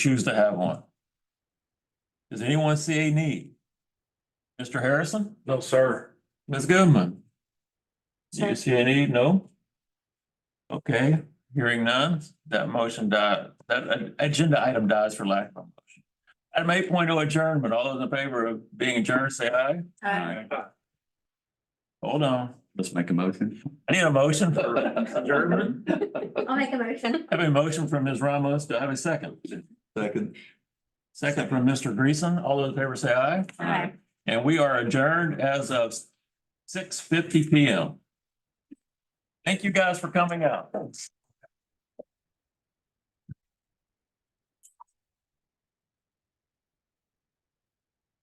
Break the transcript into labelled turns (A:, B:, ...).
A: choose to have one. Does anyone see a need? Mr. Harrison?
B: No, sir.
A: Ms. Goodman? Do you
C: Sir.
A: see a need? No? Okay, hearing none, that motion died, that uh, agenda item dies for lack of a motion. Item eight adjournment, all those in favor of being adjourned, say aye.
C: Uh,
A: Hold on,
D: Let's make a motion.
A: I need a motion for adjournment.
C: I'll make a motion.
A: I Have a motion from Ms. Ramos, do I have a second?
D: Second.
A: Second from Mr. Greason, all those in favor say aye.
C: Aye.
A: And we are adjourned as of six fifty P M. Thank you guys for coming out.